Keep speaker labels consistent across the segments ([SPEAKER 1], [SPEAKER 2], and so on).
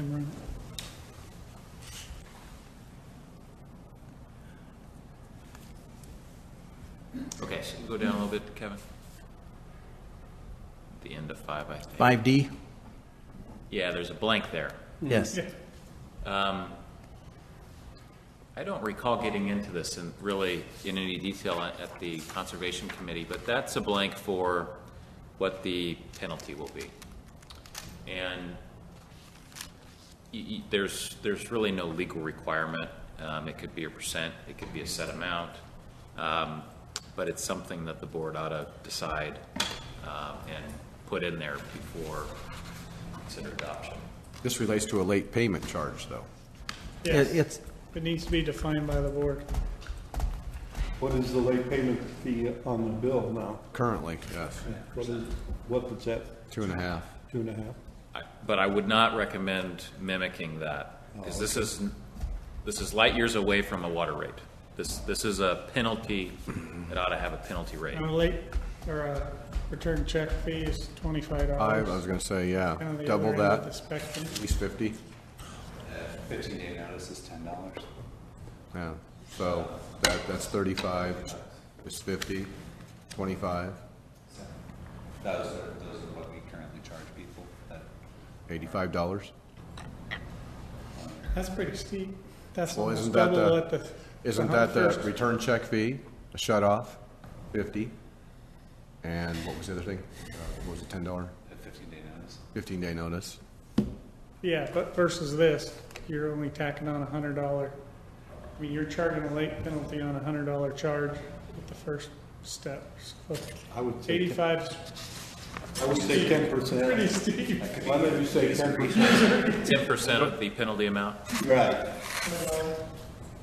[SPEAKER 1] Imran?
[SPEAKER 2] Okay, so go down a little bit, Kevin. The end of five, I think.
[SPEAKER 3] 5D?
[SPEAKER 2] Yeah, there's a blank there.
[SPEAKER 4] Mm-hmm.
[SPEAKER 3] Yes.
[SPEAKER 2] Um, I don't recall getting into this in really, in any detail at at the Conservation Committee, but that's a blank for what the penalty will be. And y- y- there's, there's really no legal requirement. Um, It could be a percent, it could be a set amount, Um, but it's something that the board ought to decide um, and put in there before consider adoption.
[SPEAKER 4] This relates to a late payment charge, though.
[SPEAKER 3] It-
[SPEAKER 1] Yes,
[SPEAKER 3] It's,
[SPEAKER 1] it needs to be defined by the board.
[SPEAKER 5] What is the late payment fee on the bill now?
[SPEAKER 4] Currently, yes,
[SPEAKER 5] What is, what is that,
[SPEAKER 4] two and a half.
[SPEAKER 5] two and a half?
[SPEAKER 2] I- But I would not recommend mimicking that, because this is, this is light years away from a water rate. This, this is a penalty, it ought to have a penalty rate.
[SPEAKER 1] And a late, or a return check fee is twenty-five
[SPEAKER 4] I
[SPEAKER 1] dollars.
[SPEAKER 4] was gonna say, yeah,
[SPEAKER 1] Kind of the other
[SPEAKER 4] double
[SPEAKER 1] end of the
[SPEAKER 4] that,
[SPEAKER 1] spectrum.
[SPEAKER 4] at least fifty,
[SPEAKER 6] Fifteen day notice is ten dollars.
[SPEAKER 4] yeah. So that, that's thirty-five, it's fifty, twenty-five,
[SPEAKER 6] Those are, those are what we currently charge people that,
[SPEAKER 4] eighty-five dollars.
[SPEAKER 1] That's pretty steep. That's
[SPEAKER 4] Well,
[SPEAKER 1] almost
[SPEAKER 4] isn't that
[SPEAKER 1] double
[SPEAKER 4] the-
[SPEAKER 1] what the.
[SPEAKER 4] Isn't that the
[SPEAKER 1] first-
[SPEAKER 4] return check fee, a shut-off, fifty? And what was the other thing? Uh, What was it, ten dollar,
[SPEAKER 6] a fifteen day notice.
[SPEAKER 4] fifteen-day notice?
[SPEAKER 1] Yeah, but versus this, you're only tacking on a hundred dollar. I mean, you're charging a late penalty on a hundred dollar charge with the first step. So
[SPEAKER 5] I would say, ten-
[SPEAKER 1] Eighty-five is
[SPEAKER 5] I would say ten
[SPEAKER 1] pretty
[SPEAKER 5] percent.
[SPEAKER 1] steep.
[SPEAKER 5] Why don't you say ten percent?
[SPEAKER 2] Ten percent of the penalty amount,
[SPEAKER 5] Right.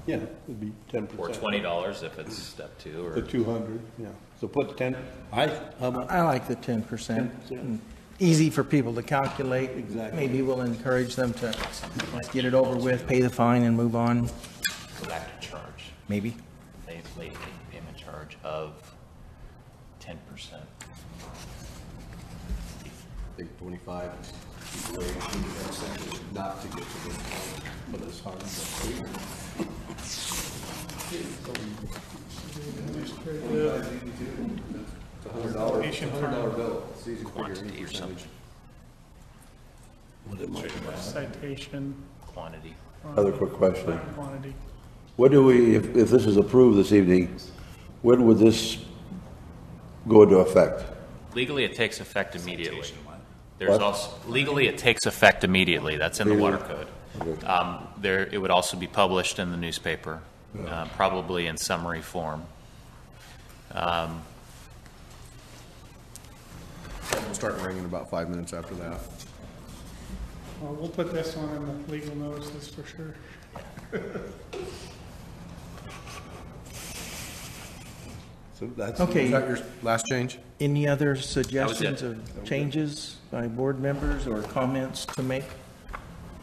[SPEAKER 5] Yeah, it'd be ten percent.
[SPEAKER 2] or twenty dollars if it's step two, or,
[SPEAKER 5] The two hundred, yeah. So put ten, I, how about,
[SPEAKER 3] I like the 10%.
[SPEAKER 5] 10%.
[SPEAKER 3] Easy for people to calculate.
[SPEAKER 5] Exactly.
[SPEAKER 3] Maybe we'll encourage them to like, get it over with, pay the fine and move on,
[SPEAKER 7] go back to charge,
[SPEAKER 3] maybe.
[SPEAKER 7] late, late payment charge of ten percent.
[SPEAKER 4] I think twenty-five is the way not to get to this point, but it's hard. It's a hundred dollar, it's a hundred dollar bill, it's easy to figure any percentage.
[SPEAKER 1] Citation.
[SPEAKER 7] Quantity.
[SPEAKER 8] Another quick question.
[SPEAKER 1] Quantity.
[SPEAKER 8] When do we, if, if this is approved this evening, when would this go into effect?
[SPEAKER 7] Legally, it takes effect immediately. There's also, legally, it takes effect immediately, that's in the water code. Um, There, it would also be published in the newspaper, uh, probably in summary form.
[SPEAKER 4] It'll start ringing about five minutes after that.
[SPEAKER 1] Well, we'll put this one in the legal notices for sure.
[SPEAKER 5] so that's.
[SPEAKER 4] Is that
[SPEAKER 3] Okay,
[SPEAKER 4] your last change?
[SPEAKER 3] any other suggestions
[SPEAKER 2] it.
[SPEAKER 3] or changes by board members or comments to make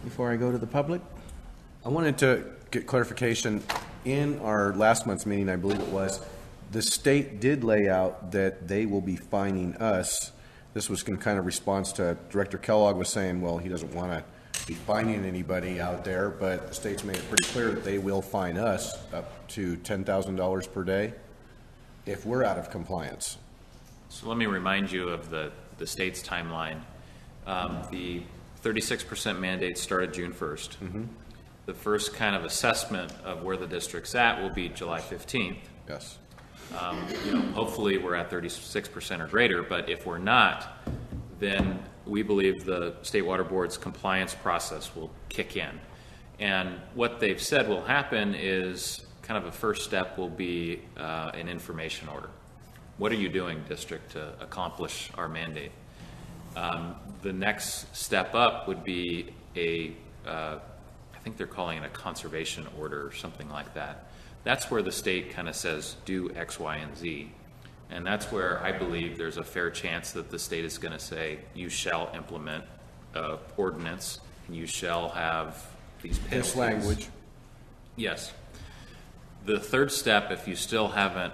[SPEAKER 3] before I go to the public?
[SPEAKER 4] I wanted to get clarification. In our last month's meeting, I believe it was, the state did lay out that they will be fining us. This was in kind of response to Director Kellogg was saying, well, he doesn't want to be fining anybody out there, but the state's made it pretty clear that they will fine us up to ten thousand dollars per day if we're out of compliance.
[SPEAKER 2] so let me remind you of the, the state's timeline. Um, the thirty-six percent mandate started June first. The first kind of assessment of where the district's at will be July fifteenth.
[SPEAKER 4] Yes.
[SPEAKER 2] you know, hopefully we're at thirty-six percent or greater, but if we're not, then we believe the State Water Board's compliance process will kick in. And what they've said will happen is, kind of a first step will be, uh, an information order. What are you doing, district, to accomplish our mandate? Um, the next step up would be a, uh, I think they're calling it a conservation order or something like that. That's where the state kind of says, do X, Y, and Z. And that's where I believe there's a fair chance that the state is going to say, you shall implement uh, ordinance, and you shall have these penalties.
[SPEAKER 4] This language.
[SPEAKER 2] Yes. The third step, if you still haven't